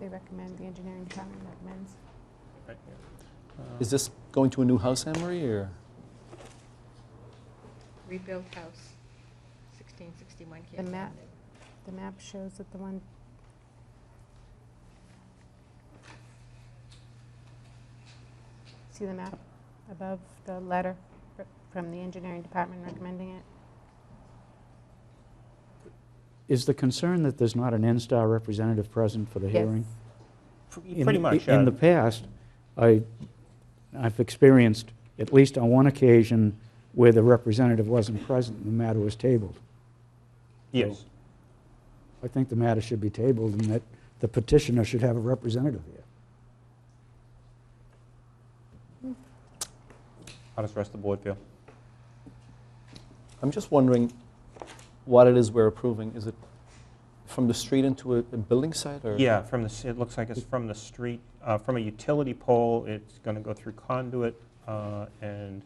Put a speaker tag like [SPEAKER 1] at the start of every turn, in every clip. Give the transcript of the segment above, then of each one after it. [SPEAKER 1] They recommend, the engineering department recommends.
[SPEAKER 2] Right, yeah.
[SPEAKER 3] Is this going to a new house, Emery, or?
[SPEAKER 4] Rebuilt house, 1661
[SPEAKER 1] The
[SPEAKER 4] Canton
[SPEAKER 1] map,
[SPEAKER 4] Avenue.
[SPEAKER 1] the map shows that the one, see the map above the letter fr- from the engineering department recommending it?
[SPEAKER 5] Is the concern that there's not an N-Star representative present for the hearing?
[SPEAKER 1] Yes.
[SPEAKER 2] Pre-
[SPEAKER 5] In-
[SPEAKER 2] Pretty much, uh,
[SPEAKER 5] In
[SPEAKER 2] yeah.
[SPEAKER 5] the past, I, I've experienced, at least on one occasion, where the representative wasn't present and the matter was tabled.
[SPEAKER 2] Yes,
[SPEAKER 5] I think the matter should be tabled and that the petitioner should have a representative here.
[SPEAKER 2] how does the rest of the board feel?
[SPEAKER 3] I'm just wondering what it is we're approving. Is it from the street into a a building site, or?
[SPEAKER 2] Yeah, from the, s- it looks like it's from the street, uh, from a utility pole, it's going to go through conduit uh, and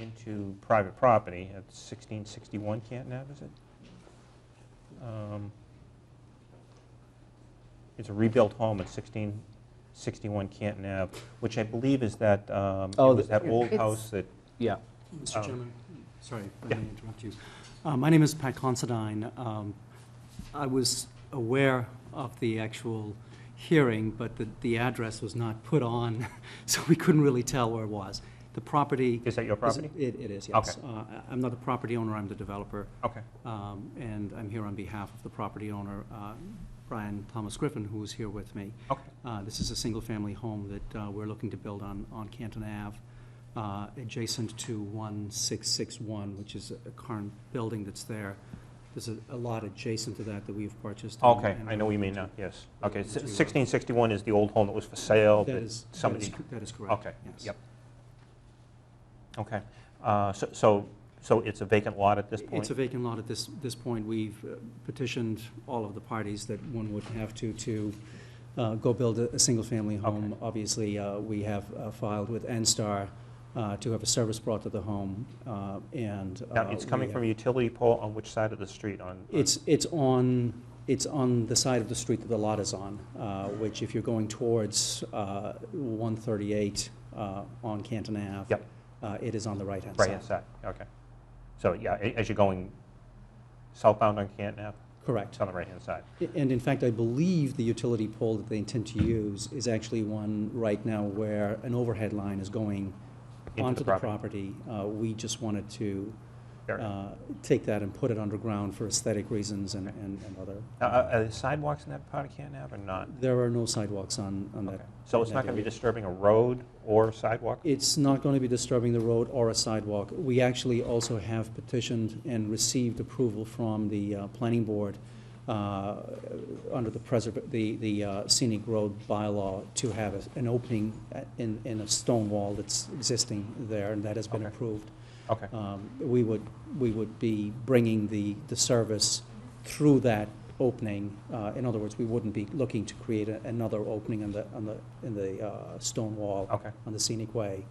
[SPEAKER 2] into private property at 1661 Canton Ave, is it? Um, It's a rebuilt home at 1661 Canton Ave, which I believe is that, um, it
[SPEAKER 3] Oh,
[SPEAKER 2] was
[SPEAKER 3] the-
[SPEAKER 2] that old
[SPEAKER 1] It's-
[SPEAKER 2] house that,
[SPEAKER 3] Yeah.
[SPEAKER 2] Um,
[SPEAKER 6] Mr. Chairman, sorry, if
[SPEAKER 2] yeah.
[SPEAKER 6] I may interrupt you. Uh, My name is Pat Considine. Um, I was aware of the actual hearing, but the, the address was not put on, so we couldn't really tell where it was. The property.
[SPEAKER 2] is that your property?
[SPEAKER 6] It, it is, yes.
[SPEAKER 2] Okay.
[SPEAKER 6] Uh, I- I'm not the property owner, I'm the developer,
[SPEAKER 2] Okay,
[SPEAKER 6] um, and I'm here on behalf of the property owner, uh, Brian Thomas Griffin, who is here with me.
[SPEAKER 2] okay.
[SPEAKER 6] Uh, This is a single-family home that uh, we're looking to build on, on Canton Ave, uh, adjacent to 1661, which is a current building that's there. There's a a lot adjacent to that that we've purchased. and-
[SPEAKER 2] Okay,
[SPEAKER 6] and
[SPEAKER 2] I know what you mean now,
[SPEAKER 6] developed.
[SPEAKER 2] yes.
[SPEAKER 6] Yeah,
[SPEAKER 2] Okay, s-
[SPEAKER 6] that's what we want.
[SPEAKER 2] 1661 is the old home that was for sale,
[SPEAKER 6] That
[SPEAKER 2] but
[SPEAKER 6] is, that is,
[SPEAKER 2] somebody,
[SPEAKER 6] that is correct.
[SPEAKER 2] okay,
[SPEAKER 6] yes.
[SPEAKER 2] yep. Okay, uh, so- so, so it's a vacant lot at this point?
[SPEAKER 6] It's a vacant lot at this, this point. We've uh, petitioned all of the parties that one would have to, to uh, go build a, a single-family home. Obviously, uh, we have uh, filed with NSTAR uh, to have a service brought to the home, uh, and.
[SPEAKER 2] Now,
[SPEAKER 6] uh,
[SPEAKER 2] it's coming
[SPEAKER 6] we- uh,
[SPEAKER 2] from a utility pole on which side of the street? On on-
[SPEAKER 6] It's, it's on, it's on the side of the street that the lot is on, uh, which if you're going towards uh, 138 uh, on Canton Ave.
[SPEAKER 2] Yep.
[SPEAKER 6] uh, It is on the right-hand side.
[SPEAKER 2] Right hand side, okay. So, yeah, a- as you're going southbound on Canton Ave,
[SPEAKER 6] Correct.
[SPEAKER 2] it's on the right-hand side.
[SPEAKER 6] And in fact, I believe the utility pole that they intend to use is actually one right now where an overhead line is going
[SPEAKER 2] Into
[SPEAKER 6] onto
[SPEAKER 2] the
[SPEAKER 6] the property. Uh, We just wanted to
[SPEAKER 2] Fair enough.
[SPEAKER 6] uh, take that and put it underground for aesthetic reasons and, and and other.
[SPEAKER 2] Now, Are are there sidewalks in that part of Canton Ave or not?
[SPEAKER 6] There are no sidewalks on, on
[SPEAKER 2] Okay.
[SPEAKER 6] that.
[SPEAKER 2] So it's not going to be disturbing a road or sidewalk?
[SPEAKER 6] It's not going to be disturbing the road or a sidewalk. We actually also have petitioned and received approval from the uh, planning board uh, under the preserv, the, the uh, scenic road bylaw to have a- an opening at- in, in a stone wall that's existing there, and that has been
[SPEAKER 2] Okay.
[SPEAKER 6] approved.
[SPEAKER 2] Okay,
[SPEAKER 6] Um, We would, we would be bringing the, the service through that opening. Uh, In other words, we wouldn't be looking to create a- another opening on the, on the, in the uh, stone wall
[SPEAKER 2] okay,
[SPEAKER 6] on the scenic way.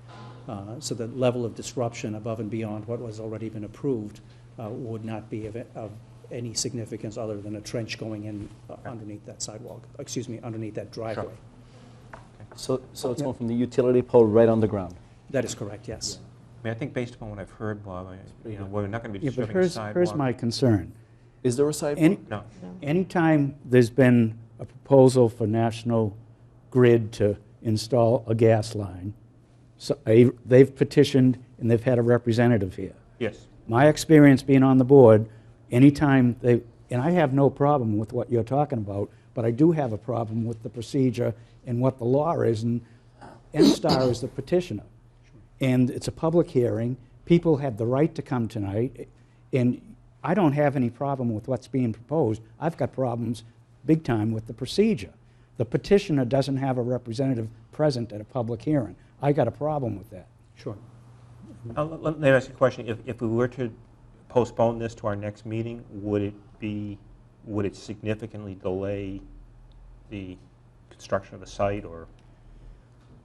[SPEAKER 6] Uh, So the level of disruption above and beyond what was already been approved uh, would not be of, of any significance other than a trench going in uh, underneath that sidewalk, excuse me, underneath that driveway.
[SPEAKER 3] So, so it's
[SPEAKER 6] Yeah.
[SPEAKER 3] going from the utility pole right on the ground?
[SPEAKER 6] That is correct, yes.
[SPEAKER 2] I mean, I think based upon what I've heard, Bob, I- you know, we're not going to be
[SPEAKER 5] Yeah, but
[SPEAKER 2] disturbing a
[SPEAKER 5] here's,
[SPEAKER 2] sidewalk.
[SPEAKER 5] here's my concern.
[SPEAKER 3] Is there a sidewalk?
[SPEAKER 5] Any,
[SPEAKER 2] No,
[SPEAKER 5] Anytime there's been a proposal for National Grid to install a gas line, so a- they've petitioned and they've had a representative here.
[SPEAKER 2] yes,
[SPEAKER 5] My experience being on the board, anytime they, and I have no problem with what you're talking about, but I do have a problem with the procedure and what the law is, and NSTAR is the petitioner. And it's a public hearing, people have the right to come tonight, and I don't have any problem with what's being proposed. I've got problems big time with the procedure. The petitioner doesn't have a representative present at a public hearing. I got a problem with that.
[SPEAKER 6] Sure.
[SPEAKER 2] Uh, Let let me ask you a question. If if we were to postpone this to our next meeting, would it be, would it significantly delay the construction of the site or